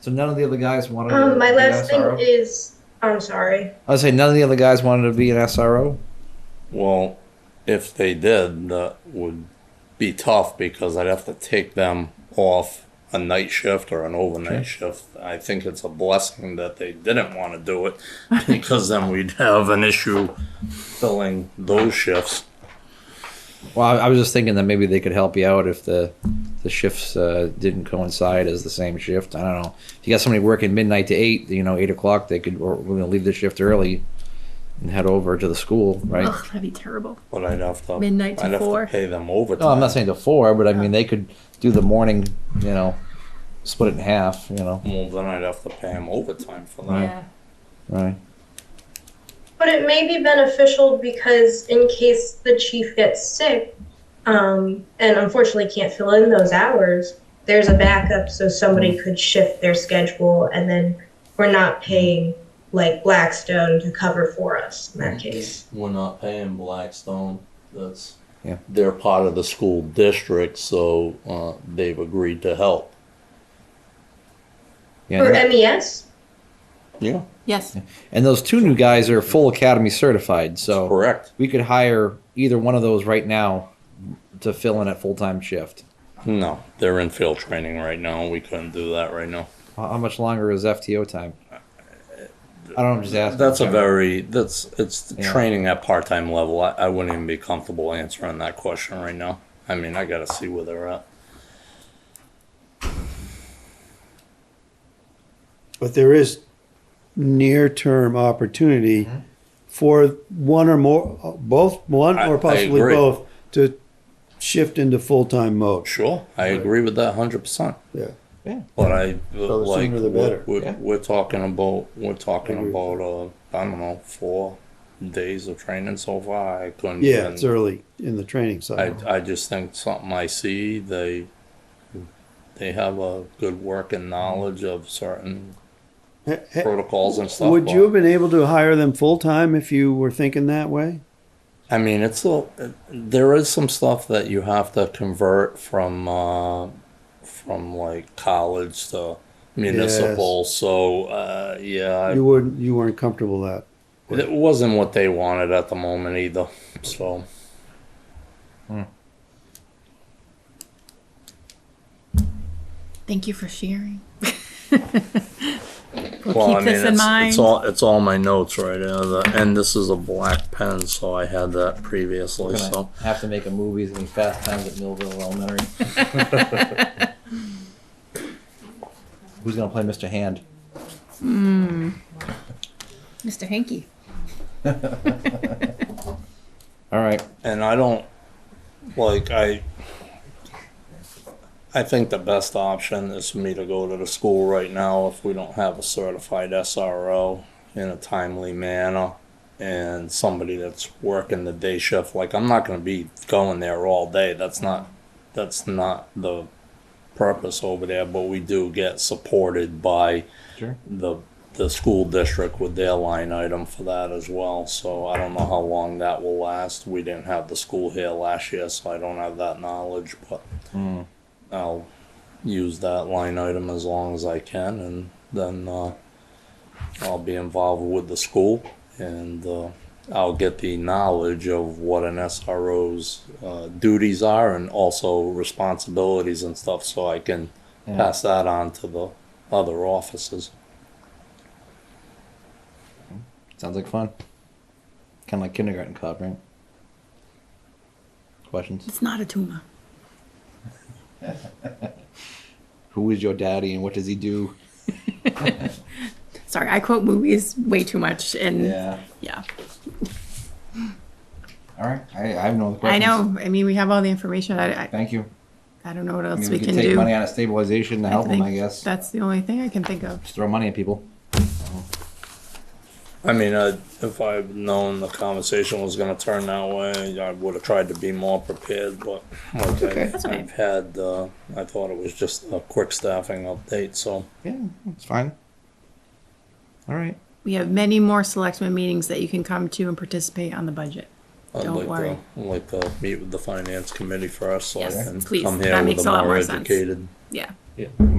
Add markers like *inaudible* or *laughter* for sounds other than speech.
So none of the other guys wanted Um, to my be an last thing SRO? is, I'm sorry. I was saying none of the other guys wanted to be an SRO. Well, if they did, that would be tough because I'd have to take them off a night shift or an overnight shift. I think it's a blessing that they didn't want to do it *laughs* because then we'd have an issue filling those shifts. Well, I, I was just thinking that maybe they could help you out if the the shifts uh, didn't coincide as the same shift. I don't know. If you got somebody working midnight to eight, you know, eight o'clock, they could or we're gonna leave the shift early and head over to the school, right? Ugh, that'd be terrible. But I'd have to Midnight to I'd have four. to pay them No, I'm overtime. not saying to four, but I mean they could do the morning, you know, split it in half, you know, Well, then I'd have to pay them overtime for that. Yeah. right? But it may be beneficial because in case the chief gets sick, um, and unfortunately can't fill in those hours, there's a backup so Mm-hmm. somebody could shift their schedule and then we're not paying like Blackstone to cover for us in that case. We're not paying Blackstone. That's Yeah. they're part of the school district, so uh, they've agreed to help. Yeah. For and- MES? Yeah, Yes. And those two new guys are full academy certified, so correct. we could hire either one of those right now to fill in at full time shift. No, they're in field training right now. We couldn't do that right now. How how much longer is FTO time? I don't know, I'm just asking. That's a very that's it's the Yeah. training at part time level. I, I wouldn't even be comfortable answering that question right now. I mean, I gotta see where they're at. But there is near-term opportunity Mm-hmm. for one or more, uh, both, one I- or I possibly agree. both, to shift into full-time mode. Sure, I agree with that hundred percent. Yeah. Yeah. But I So the like sooner the better. We're, Yeah. we're talking about we're talking I agree. about uh I don't know four days of training so far. I couldn't. Yeah, even- it's early in the training I cycle. I just think something I see they they have a good working knowledge of certain Ha- ha- protocols and stuff. Eh, Would but- you have been able to hire them full-time if you were thinking that way? I mean, it's a, there is some stuff that you have to convert from uh, from like college to municipal. So uh, yeah, You wouldn't, you weren't comfortable with that. I, it wasn't what they wanted at the moment either. So Thank you for sharing. *laughs* we'll well, keep I mean, this in it's, mind. it's all it's all my notes right now, the- and this is a black pen, so I had that previously. We're gonna So have to make a movie. It's gonna be Fast Times at Millville Elementary. Who's gonna play Mr. Hand? Mr. Hanky. All right. and I don't like I. I think the best option is for me to go to the school right now if we don't have a certified SRO in a timely manner and somebody that's working the day shift. Like I'm not going to be going there all day. That's not that's not the purpose over there. But we do get supported by Sure. the the school district with their line item for that as well. So I don't know how long that will last. We didn't have the school here last year, so I don't have that knowledge, but I'll use that line item as long as I can and then uh, I'll be involved with the school and uh, I'll get the knowledge of what an SRO's uh, duties are and also responsibilities and stuff so I can Yeah. pass that on to the other offices. Sounds like fun. Kind of like kindergarten cop, right? Questions? It's not a tumor. Who is your daddy and what does he do? Sorry, I quote movies way too much, and yeah. All right. I, I have no other I questions. know. I mean, we have all the information. I, I, Thank you. I don't know what I else mean, we, we, could can take do. money out of stabilization to I help them, think I guess. That's the only thing I can think of. Just throw money at people. I mean, I, if I'd known the conversation was going to turn that way, I would have tried to be more prepared. But like I, That's okay. I've had, uh, I thought it was just a quick staffing update. So Yeah, it's fine. All right. We have many more selectmen meetings that you can come to and participate on the budget. I'd Don't like worry. to I'd like uh, to meet with the finance committee first, so Yes, I can please. come That here makes with a a lot more more sense. educated. Yeah.